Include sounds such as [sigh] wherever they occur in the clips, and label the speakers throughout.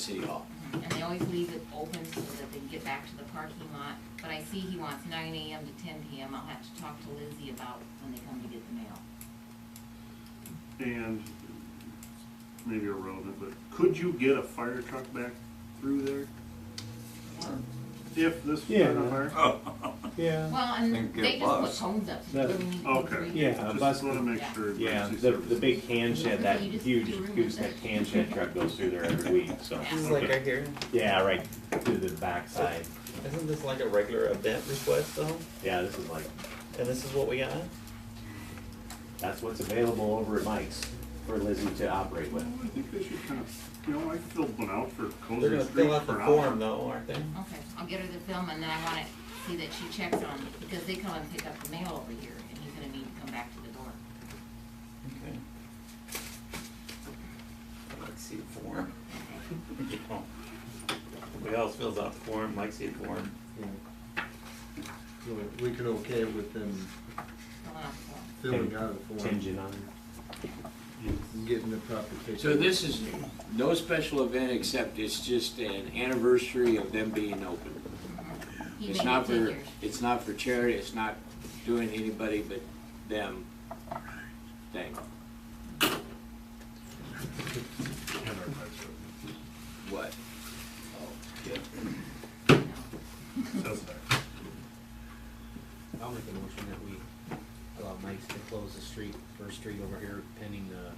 Speaker 1: City Hall.
Speaker 2: and they always leave it open so that they can get back to the parking lot. But I see he wants nine AM to ten PM, I'll have to talk to Lizzie about when they come to get the mail.
Speaker 3: And maybe irrelevant, but could you get a fire truck back through there if this was on
Speaker 4: Yeah.
Speaker 5: Oh.
Speaker 3: fire?
Speaker 4: Yeah,
Speaker 2: Well, and
Speaker 6: And get
Speaker 2: they just put
Speaker 6: bus.
Speaker 2: cones up. so you
Speaker 4: That's-
Speaker 2: wouldn't need
Speaker 3: okay.
Speaker 2: three.
Speaker 4: yeah, a bus,
Speaker 3: Just wanna make sure.
Speaker 7: Yeah,
Speaker 3: emergency
Speaker 7: the, the
Speaker 3: services-
Speaker 7: big can shed, that
Speaker 2: You just
Speaker 7: huge
Speaker 2: do room
Speaker 7: gooseneck
Speaker 2: with it.
Speaker 7: can shed truck goes through there every week, so.
Speaker 2: This
Speaker 5: This is like
Speaker 7: okay.
Speaker 5: right here.
Speaker 7: Yeah, right through the backside.
Speaker 5: Isn't this like a regular event request though?
Speaker 7: Yeah, this is like,
Speaker 5: And this is what we got?
Speaker 7: that's what's available over at Mike's for Lizzie to operate
Speaker 3: Well,
Speaker 7: with.
Speaker 3: I think they should kind of, you know, I filled one out for
Speaker 5: They're
Speaker 3: Cozy
Speaker 5: gonna
Speaker 3: Street
Speaker 5: fill out the
Speaker 3: for an
Speaker 5: form
Speaker 3: hour.
Speaker 5: though, aren't they?
Speaker 2: Okay, I'll get her the film and then I wanna see that she checks on it, because they come and pick up the mail over here, and he's gonna need to come back to the door.
Speaker 5: Okay. Let's see the form. [laughs] You know, Everybody else fills out the form, Mike see the form.
Speaker 8: So we could okay with them
Speaker 2: Fill out the form.
Speaker 8: filling out a form
Speaker 7: Contingent on,
Speaker 8: and getting the proper paperwork.
Speaker 1: So this is no special event except it's just an anniversary of them being open.
Speaker 2: He
Speaker 1: It's
Speaker 2: made
Speaker 1: not
Speaker 2: it
Speaker 1: for,
Speaker 2: figures.
Speaker 1: it's not for charity, it's not doing anybody but them thing. What?
Speaker 9: I'll make a motion that we allow Mike's to close the street, First Street over here pending the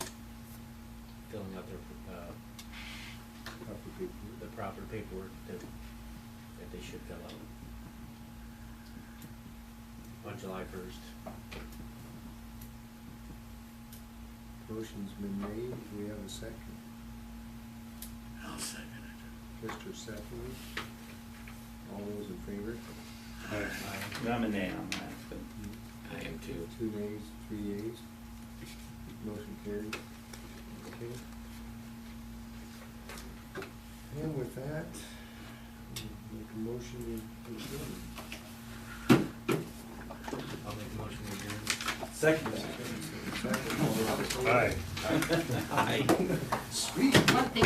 Speaker 9: filling out their, uh,
Speaker 8: Proper paperwork.
Speaker 9: the proper paperwork that, that they should fill out. On July first.
Speaker 8: Motion's been made, we have a second.
Speaker 1: I'll second
Speaker 8: Mr. Sefferly, all those in favor?
Speaker 5: I'm a nay on that, but
Speaker 1: it. I am too.
Speaker 8: Two nays, three yeas. Motion carried. Okay. And with that, we'll make a motion to adjourn.
Speaker 9: I'll make a motion to adjourn.
Speaker 8: Second, all those in favor?
Speaker 3: Aye.
Speaker 5: I.
Speaker 2: Well, they